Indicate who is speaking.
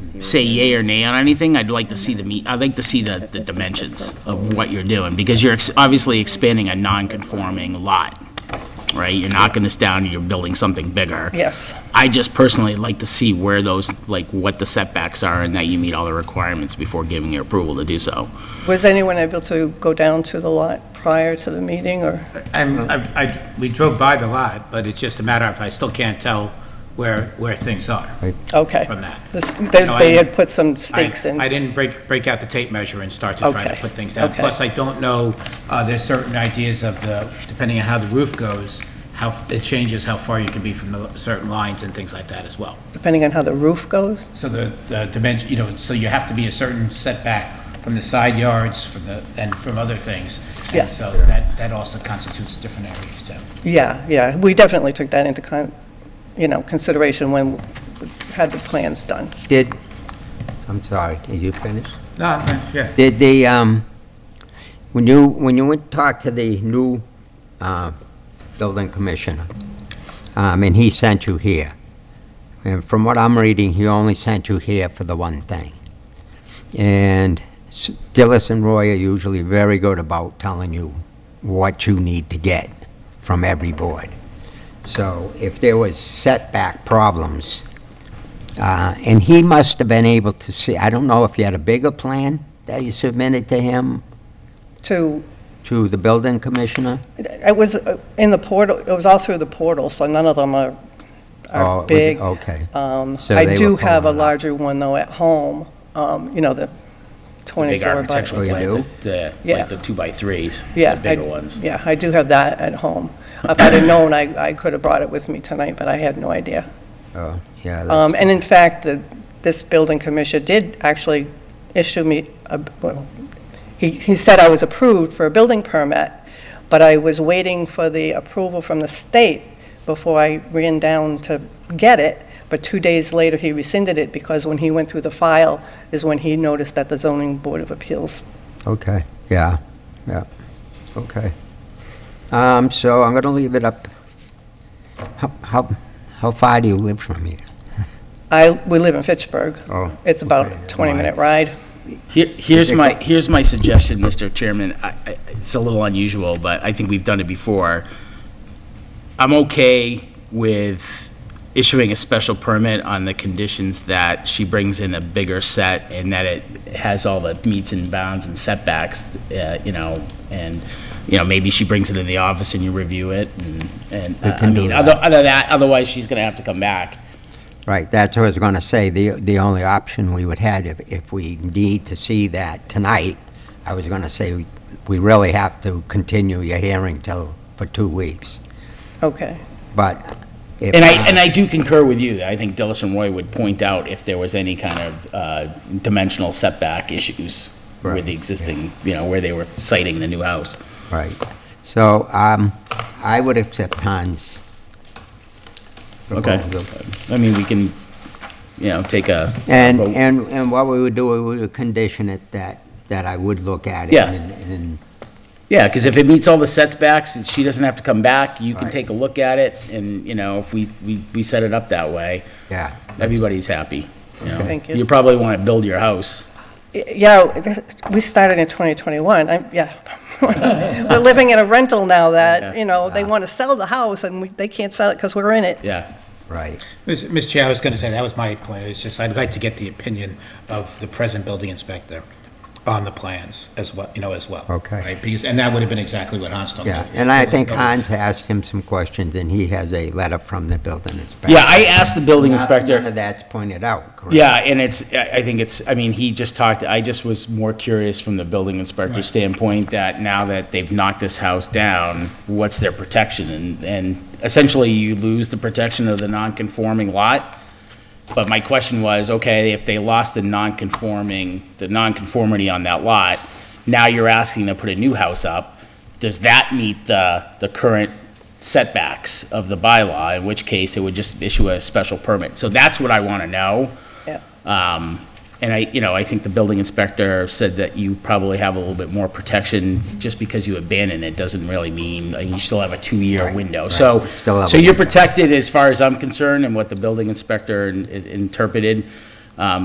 Speaker 1: say yay or nay on anything, I'd like to see the meet, I'd like to see the, the dimensions of what you're doing, because you're ex- obviously expanding a non-conforming lot, right? You're knocking this down, and you're building something bigger.
Speaker 2: Yes.
Speaker 1: I just personally like to see where those, like, what the setbacks are, and that you meet all the requirements before giving your approval to do so.
Speaker 2: Was anyone able to go down to the lot prior to the meeting, or?
Speaker 3: I'm, I've- I, we drove by the lot, but it's just a matter of I still can't tell where, where things are.
Speaker 2: Okay.
Speaker 3: From that.
Speaker 2: The s- They
Speaker 3: No, I-
Speaker 2: they had put some
Speaker 3: I-
Speaker 2: stakes in.
Speaker 3: I didn't break, break out the tape measure and start to try to
Speaker 2: Okay,
Speaker 3: put things down.
Speaker 2: okay.
Speaker 3: Plus, I don't know, uh, there's certain ideas of the, depending on how the roof goes, how, it changes how far you can be from the certain lines and things like that as well.
Speaker 2: Depending on how the roof goes?
Speaker 3: So the, the dimension, you know, so you have to be a certain setback from the side yards, from the, and from other things. And
Speaker 2: Yeah.
Speaker 3: So that, that also constitutes different areas too.
Speaker 2: Yeah, yeah, we definitely took that into, con- you know, consideration when we had the plans done.
Speaker 4: Did, I'm sorry, did you finish?
Speaker 3: No, yeah.
Speaker 4: Did the, um, when you, when you went, talked to the new, uh, building commissioner, um, and he sent you here, and from what I'm reading, he only sent you here for the one thing. And s- Dillis and Roy are usually very good about telling you what you need to get from every board. So if there was setback problems, uh, And he must have been able to see, I don't know if you had a bigger plan that you submitted to him,
Speaker 2: To,
Speaker 4: to the building commissioner?
Speaker 2: it was uh, in the portal, it was all through the portal, so none of them are,
Speaker 4: Oh, it
Speaker 2: are
Speaker 4: was-
Speaker 2: big.
Speaker 4: okay.
Speaker 2: Um,
Speaker 4: So they
Speaker 2: I
Speaker 4: were
Speaker 2: do have a
Speaker 4: pulling it up.
Speaker 2: larger one, though, at home, um, you know, the 24
Speaker 1: Big
Speaker 2: by...
Speaker 1: architectural
Speaker 4: Oh, you
Speaker 1: plans,
Speaker 4: do?
Speaker 1: the,
Speaker 2: Yeah.
Speaker 1: like the two-by-threes,
Speaker 2: Yeah,
Speaker 1: the
Speaker 2: I-
Speaker 1: bigger ones.
Speaker 2: Yeah, I do have that at home. If I'd have known, I, I could have brought it with me tonight, but I had no idea.
Speaker 4: Oh, yeah,
Speaker 2: Um,
Speaker 4: that's-
Speaker 2: and in fact, the, this building commissioner did actually issue me a, well, he, he said I was approved for a building permit, but I was waiting for the approval from the state before I ran down to get it. But two days later, he rescinded it because when he went through the file is when he noticed that the zoning board of appeals.
Speaker 4: okay, yeah, yeah, okay. Um, So I'm going to leave it up. How, how how far do you live from here?
Speaker 2: I, we live in Fitchburg.
Speaker 4: Oh,
Speaker 2: It's about a
Speaker 4: okay.
Speaker 2: 20-minute ride.
Speaker 1: Here, here's my, here's my suggestion, Mr. Chairman. I, I, it's a little unusual, but I think we've done it before. I'm okay with issuing a special permit on the conditions that she brings in a bigger set and that it has all the meets and bounds and setbacks, uh, you know, and, you know, maybe she brings it in the office and you review it and, and, uh, I
Speaker 4: can do
Speaker 1: mean,
Speaker 4: that.
Speaker 1: other, other that, otherwise she's gonna have to come back.
Speaker 4: Right, that's what I was going to say, the, the only option we would have, if, if we need to see that tonight, I was going to say, we really have to continue your hearing till, for two weeks,
Speaker 2: Okay.
Speaker 4: but if...
Speaker 1: And I, and I do concur with you. I think Dillis and Roy would point out if there was any kind of uh, dimensional setback issues with
Speaker 4: Right,
Speaker 1: the existing, you know, where they were citing the new house.
Speaker 4: Right. So um, I would accept Hans.
Speaker 1: Okay. uh, I mean, we can, you know, take a.
Speaker 4: And,
Speaker 1: vote.
Speaker 4: and, and what we would do, we would condition it that, that I would look at it.
Speaker 1: Yeah.
Speaker 4: and- And,
Speaker 1: Yeah, because if it meets all the setbacks, she doesn't have to come back. You can
Speaker 4: Right.
Speaker 1: take a look at it and, you know, if we, we, we set it up that way,
Speaker 4: yeah.
Speaker 1: everybody's happy. you know.
Speaker 2: Thank you.
Speaker 1: You probably want to build your house.
Speaker 2: Yeah, this- we started in 2021, I'm, yeah. We're living in a rental now that, you know, they want to sell the house and we- they can't sell it because we're in it.
Speaker 1: Yeah.
Speaker 4: Right.
Speaker 3: Ms. Ms. Chair, I was going to say, that was my point, it's just, I'd like to get the opinion of the present building inspector on the plans as well, you know, as well.
Speaker 4: Okay.
Speaker 3: Right, because, and that would have been exactly what Hans told me.
Speaker 4: Yeah. And I think Hans asked him some questions, and he has a letter from the building inspector.
Speaker 1: Yeah, I asked the building
Speaker 4: None-
Speaker 1: inspector.
Speaker 4: None of that's pointed out, correct?
Speaker 1: Yeah, and it's, I I think it's, I mean, he just talked, I just was more curious from the building inspector standpoint that now that they've knocked this house down, what's their protection? And, and essentially you lose the protection of the non-conforming lot. But my question was, okay, if they lost the non-conforming, the non-conformity on that lot, now you're asking to put a new house up, does that meet the, the current setbacks of the bylaw? In which case, it would just issue a special permit. So that's what I want to know.
Speaker 2: Yeah.
Speaker 1: Um, And I, you know, I think the building inspector said that you probably have a little bit more protection. Just because you abandon it doesn't really mean, and you still have a two-year
Speaker 4: Right,
Speaker 1: window.
Speaker 4: right.
Speaker 1: So,
Speaker 4: Still have
Speaker 1: so
Speaker 4: a
Speaker 1: you're protected as far as I'm concerned and what the building inspector in- in- interpreted. Um,